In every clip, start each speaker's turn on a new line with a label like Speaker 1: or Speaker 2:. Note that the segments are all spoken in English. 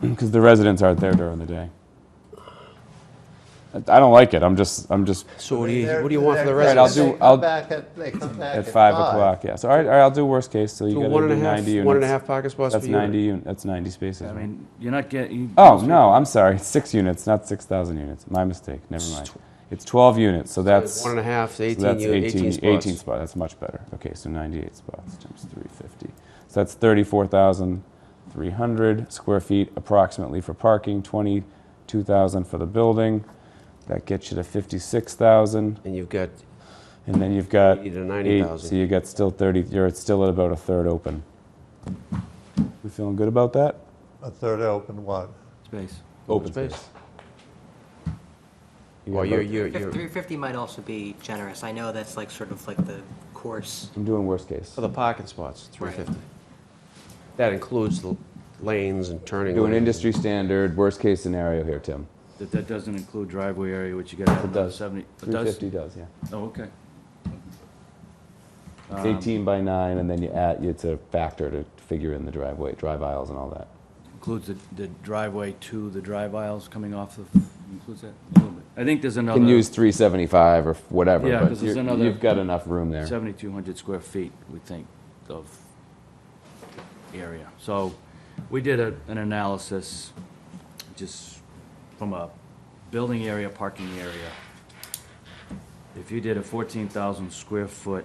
Speaker 1: because the residents aren't there during the day. I I don't like it, I'm just, I'm just,
Speaker 2: So what do you,
Speaker 3: They're-
Speaker 2: what do you want for the
Speaker 3: they're-
Speaker 1: Right, I'll do-
Speaker 2: residents?
Speaker 3: they come
Speaker 1: I'll-
Speaker 3: back at- They come back
Speaker 1: at 5 o'clock, yes. All right, all right, I'll do worst case, so you
Speaker 2: So
Speaker 1: gotta
Speaker 2: one and
Speaker 1: do
Speaker 2: a half,
Speaker 1: 90 units.
Speaker 2: one and a half parking spots per
Speaker 1: That's
Speaker 2: unit.
Speaker 1: 90, un- that's 90 spaces.
Speaker 4: I
Speaker 1: right?
Speaker 4: mean, you're not getting.
Speaker 1: Oh, no, I'm sorry, it's six units, not 6,000 units, my mistake, never mind. It's 12 units, so that's, so
Speaker 2: One and a half to 18,
Speaker 1: that's
Speaker 2: you- 18
Speaker 1: 18,
Speaker 2: spots.
Speaker 1: 18 spots, that's much better. Okay, so 98 spots times 350. So that's 34,300 square feet approximately for parking, 22,000 for the building. That gets you to 56,000.
Speaker 2: And you've got,
Speaker 1: And then you've got
Speaker 2: 80 to
Speaker 1: eight,
Speaker 2: 90,000.
Speaker 1: so you got still 30, you're at still at about a third open. We feeling good about that?
Speaker 3: A third open what?
Speaker 4: Space.
Speaker 1: Open
Speaker 2: space.
Speaker 1: You got
Speaker 2: well, you're,
Speaker 1: about-
Speaker 2: you're,
Speaker 5: Fif-
Speaker 2: you're,
Speaker 5: 350 might also be generous. I know that's like sort of like the course.
Speaker 1: I'm doing worst case.
Speaker 2: for the parking spots,
Speaker 5: Right.
Speaker 2: 350. That includes the lanes and turning.
Speaker 1: Do an
Speaker 2: lanes.
Speaker 1: industry standard, worst case scenario here, Tim.
Speaker 4: That, that doesn't include driveway area, which you gotta have
Speaker 1: It
Speaker 4: another
Speaker 1: does.
Speaker 4: seventy. It does?
Speaker 1: 350 does, yeah.
Speaker 4: Oh, okay. Um,
Speaker 1: It's 18 by 9, and then you add, it's a factor to figure in the driveway, drive aisles and all that.
Speaker 4: Includes the, the driveway to the drive aisles coming off the, includes that a little bit. I think there's
Speaker 1: You can
Speaker 4: another
Speaker 1: use 375 or whatever,
Speaker 4: Yeah,
Speaker 1: but
Speaker 4: 'cause there's
Speaker 1: you're-
Speaker 4: another-
Speaker 1: you've got enough room there.
Speaker 4: seventy-two hundred square feet, we think, of area. So, we did a, an analysis, just from a building area, parking area. If you did a fourteen thousand square foot,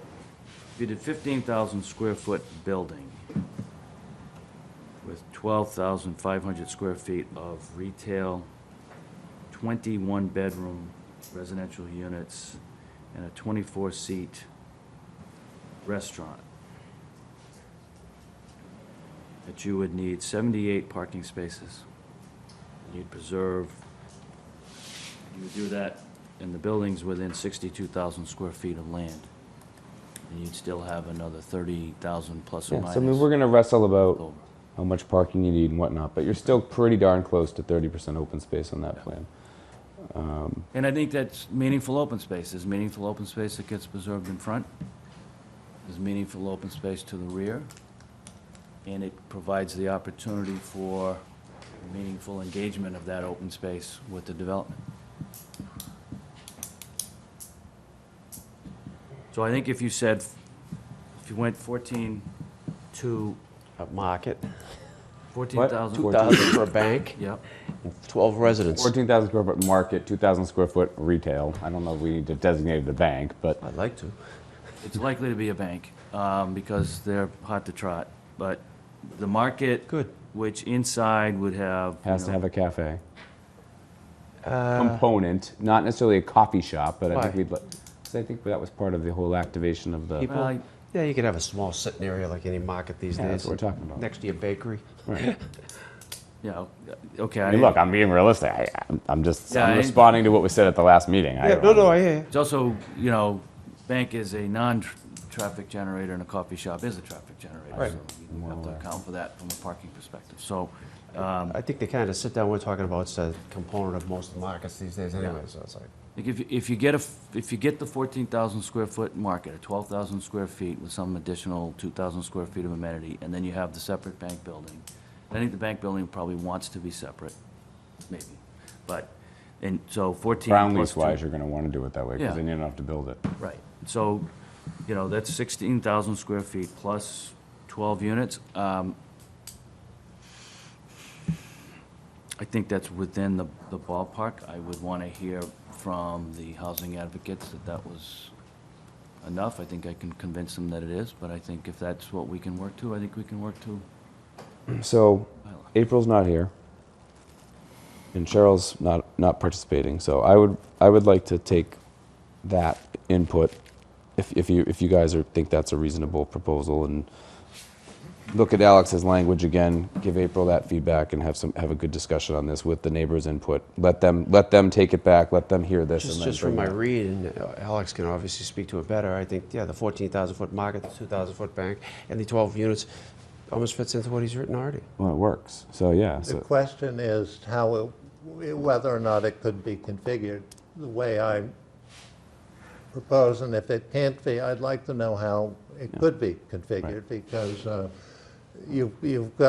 Speaker 4: if you did fifteen thousand square foot building with twelve thousand five hundred square feet of retail, twenty-one bedroom residential units, and a twenty-four seat restaurant, that you would need seventy-eight parking spaces. You'd preserve, you would do that in the buildings within sixty-two thousand square feet of land. And you'd still have another thirty thousand plus or
Speaker 1: Yeah,
Speaker 4: minus.
Speaker 1: so I mean, we're gonna wrestle about
Speaker 4: over.
Speaker 1: how much parking you need and whatnot, but you're still pretty darn close to 30% open space on that plan.
Speaker 4: And I think that's meaningful open space. There's meaningful open space that gets preserved in front. There's meaningful open space to the rear. And it provides the opportunity for meaningful engagement of that open space with the development. So I think if you said, if you went 14 to
Speaker 2: Up market,
Speaker 4: 14,000.
Speaker 2: 2,000 for a bank,
Speaker 4: Yep.
Speaker 2: and 12 residents.
Speaker 1: 14,000 square foot market, 2,000 square foot retail. I don't know if we need to designate the bank, but
Speaker 2: I'd like to.
Speaker 4: It's likely to be a bank, um, because they're hot to trot, but the market.
Speaker 2: Good.
Speaker 4: Which inside would have. you
Speaker 1: has to
Speaker 4: know,
Speaker 1: have a cafe. Component, not necessarily a coffee shop, but I think
Speaker 2: Why?
Speaker 1: we'd, because I think that was part of the whole activation of the,
Speaker 2: People-
Speaker 4: Well,
Speaker 2: Yeah, you could have a small sitting area like any market these
Speaker 1: Yeah,
Speaker 2: days.
Speaker 1: that's what we're talking about.
Speaker 2: Next to your bakery.
Speaker 1: Right.
Speaker 4: Yeah, okay.
Speaker 1: I
Speaker 4: I
Speaker 1: mean,
Speaker 4: didn't-
Speaker 1: look, I'm being realistic. I, I'm- I'm just,
Speaker 4: Yeah, I
Speaker 1: I'm
Speaker 4: didn't-
Speaker 1: responding to what was said at the last meeting. I
Speaker 2: Yeah,
Speaker 1: don't
Speaker 2: no,
Speaker 1: know.
Speaker 2: no, I hear you.
Speaker 4: It's also, you know, bank is a non-traffic generator and a coffee shop is a traffic generator.
Speaker 2: Right.
Speaker 4: So you have to account for that from a parking perspective, so, um,
Speaker 2: I think they kind of sit down, we're talking about, it's a component of most markets these days anyway, so it's like.
Speaker 4: Like if, if you get a, f- if you get the fourteen thousand square foot market, or twelve thousand square feet with some additional two thousand square feet of amenity, and then you have the separate bank building, I think the bank building probably wants to be separate, maybe, but, and so fourteen.
Speaker 1: Ground
Speaker 4: plus
Speaker 1: lease wise,
Speaker 4: two-
Speaker 1: you're gonna wanna do it that way,
Speaker 4: Yeah.
Speaker 1: because then you don't have to build it.
Speaker 4: Right, so, you know, that's sixteen thousand square feet plus twelve units. Um, I think that's within the, the ballpark. I would want to hear from the housing advocates that that was enough. I think I can convince them that it is, but I think if that's what we can work to, I think we can work to.
Speaker 1: So
Speaker 4: Bylaw.
Speaker 1: April's not here, and Cheryl's not not participating. So I would I would like to take that input, if if you if you guys are think that's a reasonable proposal, and look at Alex's language again. Give April that feedback, and have some have a good discussion on this with the neighbors' input. Let them let them take it back. Let them hear this.
Speaker 2: Just,
Speaker 1: and then
Speaker 2: just from my
Speaker 1: bring it.
Speaker 2: read, and uh, Alex can obviously speak to it better, I think, yeah, the 14,000 foot market, the 2,000 foot bank, and the 12 units almost fits into what he's written already.
Speaker 1: well, it works. So yeah.
Speaker 3: The
Speaker 1: So,
Speaker 3: question is how, it- whether or not it could be configured the way I propose, and if it can't be, I'd like to know how it could be configured, because uh, you- you've got